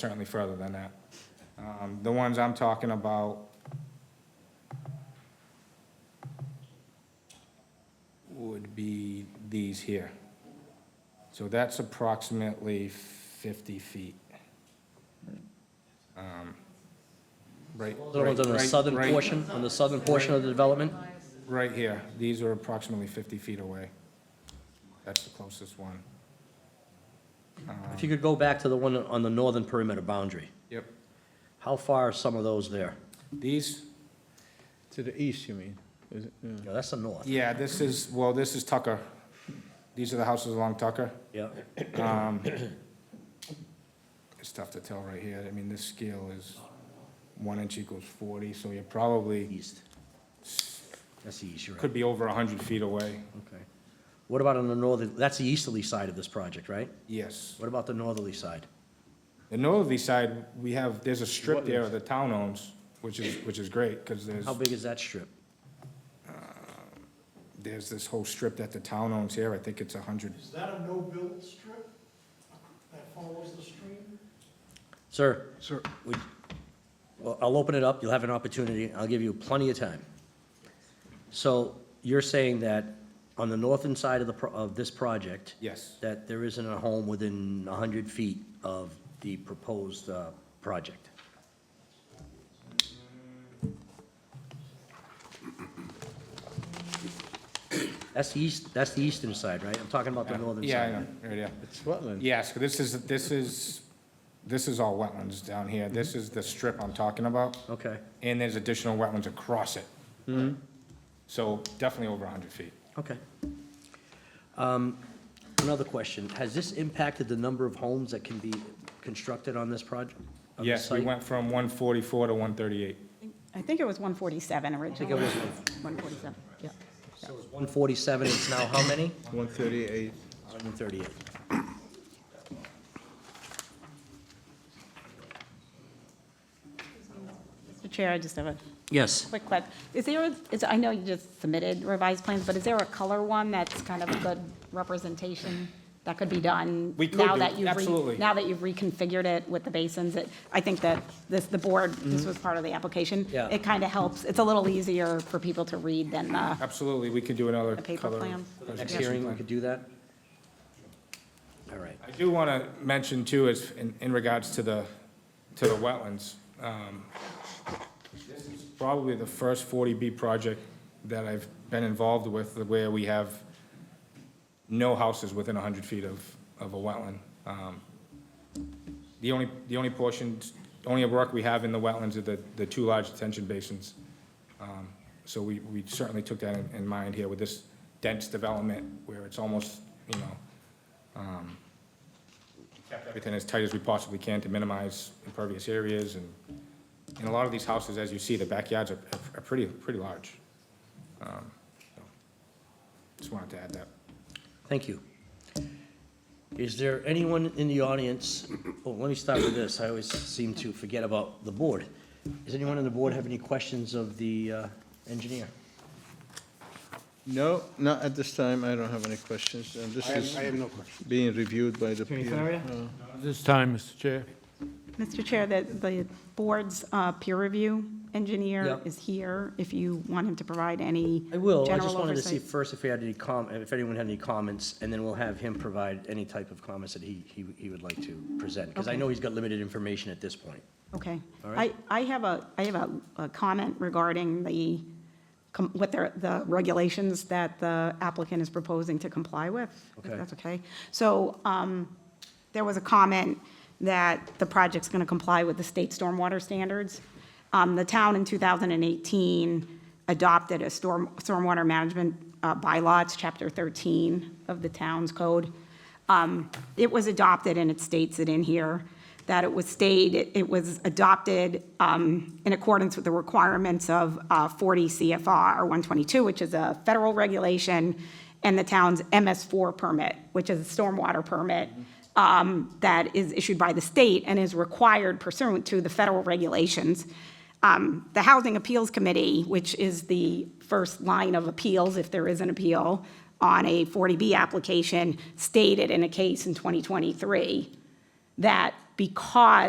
certainly further than that. Um, The ones I'm talking about, would be these here. So that's approximately 50 feet. Um, Right, The ones on the right- southern right- portion, on the southern portion of the development? Right here, these are approximately 50 feet away. That's the closest one. If you could go back to the one on the northern perimeter boundary, Yep. how far are some of those there? These, To the east, you mean? Is it, yeah. Yeah, that's the north. yeah, this is, well, this is Tucker. These are the houses along Tucker. Yeah, Um, It's tough to tell right here. I mean, this scale is, one inch equals 40, so you're probably, east. That's the east, you're right. could be over 100 feet away. Okay. What about on the northern, that's the easterly side of this project, right? Yes. What about the northerly side? The northerly side, we have, there's a strip there that the town owns, which is, which is great, because there's, How big is that strip? there's this whole strip that the town owns here. I think it's 100. Is that a no-build strip that follows the stream? Sir, Sir. would, well, I'll open it up, you'll have an opportunity, I'll give you plenty of time. So you're saying that on the northern side of the, pro- of this project, Yes, that there isn't a home within 100 feet of the proposed uh, project. That's the east, that's the eastern side, right? I'm talking about the northern yeah, I side. know, right, yeah. It's wetland. Yes, this is, this is, this is all wetlands down here. This is the strip I'm talking about. Okay, and there's additional wetlands across it. Mm-hmm. So definitely over 100 feet. okay. Um, Another question, has this impacted the number of homes that can be constructed on this project? on this Yes, we site? went from 144 to 138. I think it was 147 originally. was 147, yeah. So it's 147, it's now how many? One thirty-eight. 138. Mr. Chair, I just have a Yes. quick question. Is there, a- is, I know you just submitted revised plans, but is there a color one that's kind of a good representation that could be done? We could now do, that you've re- absolutely. Now that you've reconfigured it with the basins, it, I think that this, the board, this was part of the application. Mm-hmm. Yeah. It kind of helps, it's a little easier for people to read than uh, the, Absolutely, we could do another The paper color. plan? For the Next presentation hearing, we plan. could do that? All right. I do want to mention too, is in, in regards to the, to the wetlands, um, this is probably the first 40B project that I've been involved with, where we have no houses within 100 feet of, of a wetland. Um, The only, the only portions, only work we have in the wetlands are the, the two large detention basins. Um, So we, we certainly took that in, in mind here with this dense development, where it's almost, you know, um, kept everything as tight as we possibly can to minimize impervious areas, and, and a lot of these houses, as you see, the backyards are, are pretty, pretty large. Um, so, Just wanted to add that. Thank you. Is there anyone in the audience, oh, let me start with this, I always seem to forget about the board. Does anyone on the board have any questions of the uh, engineer? No, not at this time. I don't have any questions. And this is no question. being reviewed by the Attorney peer. Farrier? No. This time, Mr. Chair. Mr. Chair, the, the board's uh, peer review engineer Yep. is here, if you want him to provide any I will, I general just wanted to see oversight. first if we had any com, if anyone had any comments, and then we'll have him provide any type of comments that he, he, he would like to present, because I Okay. know he's got limited information at this point. Okay. All I, right. I have a, I have a, a comment regarding the, com- what the, the regulations that the applicant is proposing to comply with. if Okay. That's okay. So, um, there was a comment that the project's gonna comply with the state stormwater standards. Um, the town in two thousand and eighteen adopted a storm, stormwater management, uh, bylaw, it's chapter thirteen of the town's code. Um, It was adopted, and it states it in here, that it was stayed, it was adopted um, in accordance with the requirements of uh, 40 CFR 122, which is a federal regulation, and the town's MS4 permit, which is a stormwater permit um, that is issued by the state and is required pursuant to the federal regulations um, the Housing Appeals Committee, which is the first line of appeals, if there is an appeal, on a 40B application, stated in a case in 2023 that because